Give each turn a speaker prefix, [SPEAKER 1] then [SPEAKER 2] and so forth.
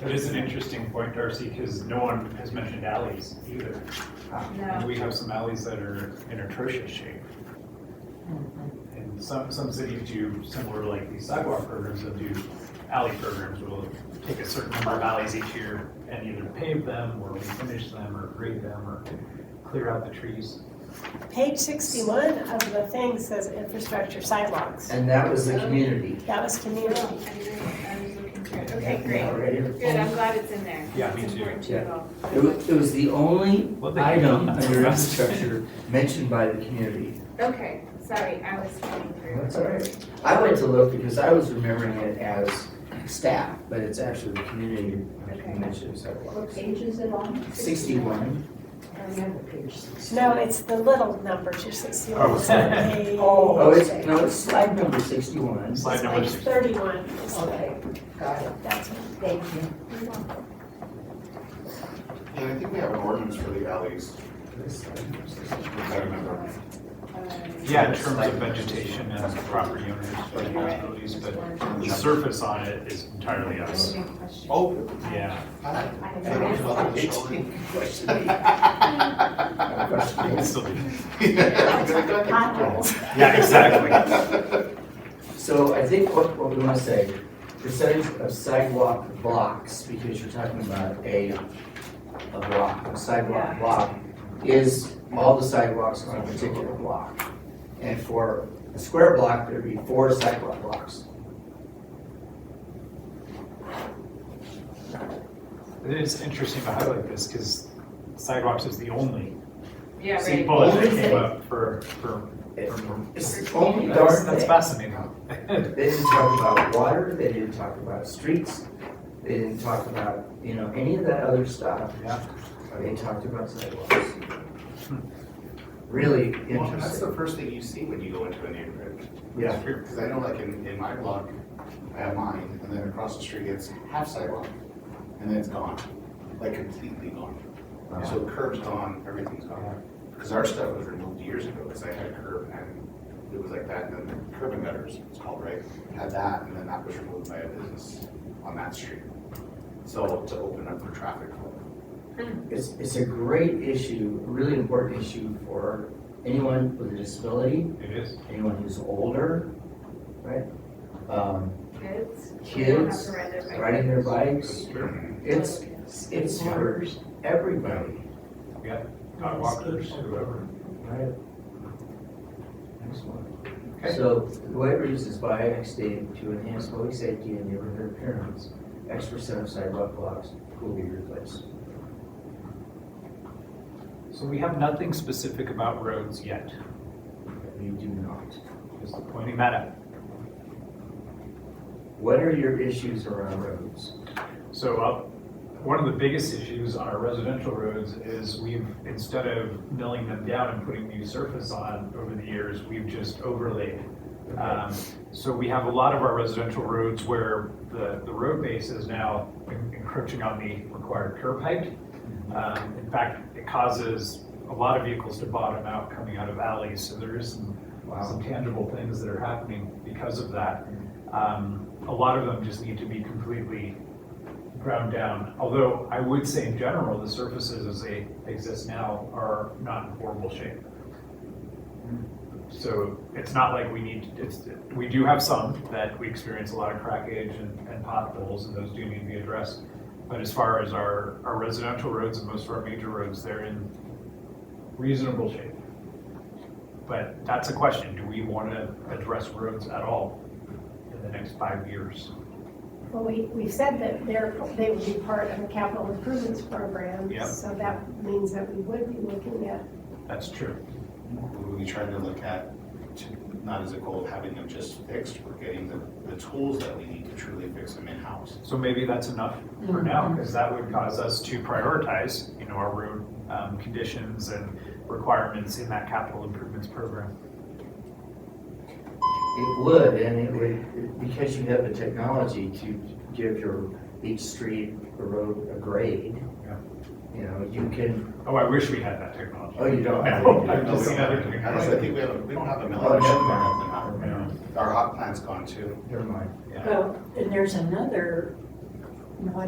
[SPEAKER 1] That is an interesting point, Darcy, because no one has mentioned alleys either. Um, And
[SPEAKER 2] No.
[SPEAKER 1] we have some alleys that are in atrocious shape. And some, some cities do similar, like these sidewalk programs that do alley programs will take a certain number of alleys each year and either pave them or refinish them or grade them or clear out the trees.
[SPEAKER 3] Page sixty-one of the thing says infrastructure sidewalks.
[SPEAKER 4] And that was the community.
[SPEAKER 3] That was community.
[SPEAKER 2] Okay, great.
[SPEAKER 4] Already.
[SPEAKER 2] Good, I'm glad it's in there.
[SPEAKER 1] Yeah, me
[SPEAKER 2] It's
[SPEAKER 1] too.
[SPEAKER 2] important to
[SPEAKER 4] Yeah.
[SPEAKER 2] know.
[SPEAKER 4] It was, it was the only
[SPEAKER 1] Well, they-
[SPEAKER 4] item under infrastructure mentioned by the community.
[SPEAKER 2] Okay, sorry, I was coming through.
[SPEAKER 4] That's all right. I went to look because I was remembering it as staff, but it's actually the community
[SPEAKER 2] Okay.
[SPEAKER 4] mentioned sidewalks.
[SPEAKER 5] What page is it on?
[SPEAKER 4] Sixty-one.
[SPEAKER 5] I remember page sixty.
[SPEAKER 3] No, it's the little number, just sixty-one.
[SPEAKER 1] Oh, sorry.
[SPEAKER 3] Page-
[SPEAKER 4] Oh, it's,
[SPEAKER 5] okay.
[SPEAKER 4] no, it's slide number sixty-one.
[SPEAKER 1] Slide number
[SPEAKER 3] Page
[SPEAKER 1] six.
[SPEAKER 3] thirty-one is the,
[SPEAKER 5] Okay, got it.
[SPEAKER 3] that's what
[SPEAKER 5] Thank you.
[SPEAKER 6] And I think we have an ordinance for the alleys, if I remember.
[SPEAKER 2] uh,
[SPEAKER 1] Yeah, in terms of vegetation and property owners' responsibilities, but the surface on it is entirely us.
[SPEAKER 6] Oh,
[SPEAKER 1] Yeah.
[SPEAKER 5] I
[SPEAKER 6] I don't
[SPEAKER 5] remember.
[SPEAKER 6] know. Eighteen.
[SPEAKER 1] it's still-
[SPEAKER 6] Yeah.
[SPEAKER 3] potholes.
[SPEAKER 1] Yeah, exactly.
[SPEAKER 4] So I think what, what we wanna say, percentage of sidewalk blocks, because you're talking about a, a block, a sidewalk
[SPEAKER 2] Yeah.
[SPEAKER 4] block, is all the sidewalks on a particular block. And for a square block, there'd be four sidewalk blocks.
[SPEAKER 1] It is interesting to highlight this because sidewalks is the only
[SPEAKER 2] Yeah,
[SPEAKER 1] city
[SPEAKER 2] right.
[SPEAKER 1] bullet that
[SPEAKER 4] Only
[SPEAKER 1] came
[SPEAKER 4] thing.
[SPEAKER 1] up for, for, for-
[SPEAKER 4] It's the only
[SPEAKER 1] that's,
[SPEAKER 4] darn
[SPEAKER 1] that's
[SPEAKER 4] thing.
[SPEAKER 1] fascinating.
[SPEAKER 4] They didn't talk about water, they didn't talk about streets, they didn't talk about, you know, any of that other stuff.
[SPEAKER 1] Yeah.
[SPEAKER 4] They talked about sidewalks. Really
[SPEAKER 6] Hmm. Well, that's
[SPEAKER 4] interesting,
[SPEAKER 6] the first thing you see when you go into a neighborhood.
[SPEAKER 4] yeah.
[SPEAKER 6] Because I know like in, in my block, I have mine, and then across the street it's half sidewalk, and then it's gone, like completely gone. Um, So the curb's gone, everything's gone. Because our stuff was removed years ago, because I had a curb and it was like that, and then curb and gutters, it's called, right? Had that, and then that was removed by a business on that street. So to open up for traffic.
[SPEAKER 4] It's, it's a great issue, a really important issue for anyone with a disability,
[SPEAKER 1] It is.
[SPEAKER 4] anyone who's older, right? Um,
[SPEAKER 2] Kids. They don't have
[SPEAKER 4] Kids
[SPEAKER 2] to ride their bike.
[SPEAKER 4] riding their bikes, it's, it's for everybody,
[SPEAKER 1] Dog walkers, whoever.
[SPEAKER 4] right? Excellent.
[SPEAKER 1] Okay.
[SPEAKER 4] So the way it reads is by annexed date to enhance public safety and neighborhood appearance, X percent of sidewalk blocks will be replaced.
[SPEAKER 1] So we have nothing specific about roads yet,
[SPEAKER 4] We do not.
[SPEAKER 1] just pointing that out.
[SPEAKER 4] What are your issues around roads?
[SPEAKER 1] So uh, one of the biggest issues on our residential roads is we've, instead of milling them down and putting new surface on over the years, we've just overlaid. Um, So we have a lot of our residential roads where the, the road base is now en- encroaching on the required curb height. Um, In fact, it causes a lot of vehicles to bottom out coming out of alleys, so there is some some tangible things that are happening because of that. Um, a lot of them just need to be completely ground down. Although I would say in general, the surfaces as they exist now are not in horrible shape. So it's not like we need, it's, we do have some that we experience a lot of crackage and, and potholes and those do need to be addressed. But as far as our, our residential roads and most of our major roads, they're in reasonable shape. But that's a question, do we want to address roads at all in the next five years?
[SPEAKER 3] Well, we, we said that they're, they would be part of a capital improvements program.
[SPEAKER 1] Yep.
[SPEAKER 3] So that means that we would be looking at,
[SPEAKER 1] That's true.
[SPEAKER 6] We tried to look at, to- not as a goal of having them just fixed, we're getting the, the tools that we need to truly fix them in-house.
[SPEAKER 1] So maybe that's enough for now, because that would cause us to prioritize, you know, our road um, conditions and requirements in that capital improvements program.
[SPEAKER 4] It would, and it would, because you have the technology to give your, each street or road a grade.
[SPEAKER 1] Yeah.
[SPEAKER 4] You know, you can,
[SPEAKER 1] Oh, I wish we had that technology.
[SPEAKER 4] oh, you don't. have
[SPEAKER 1] No,
[SPEAKER 4] it.
[SPEAKER 1] I'm just
[SPEAKER 6] We
[SPEAKER 1] saying
[SPEAKER 6] don't
[SPEAKER 1] other
[SPEAKER 6] have a- I don't
[SPEAKER 1] technology.
[SPEAKER 6] think we have, a- we don't have a mill.
[SPEAKER 4] Oh, never
[SPEAKER 6] Our-
[SPEAKER 4] mind.
[SPEAKER 6] Our hot plant's gone too.
[SPEAKER 4] Never mind.
[SPEAKER 5] Oh,
[SPEAKER 1] Yeah.
[SPEAKER 5] Well, and there's another, no, I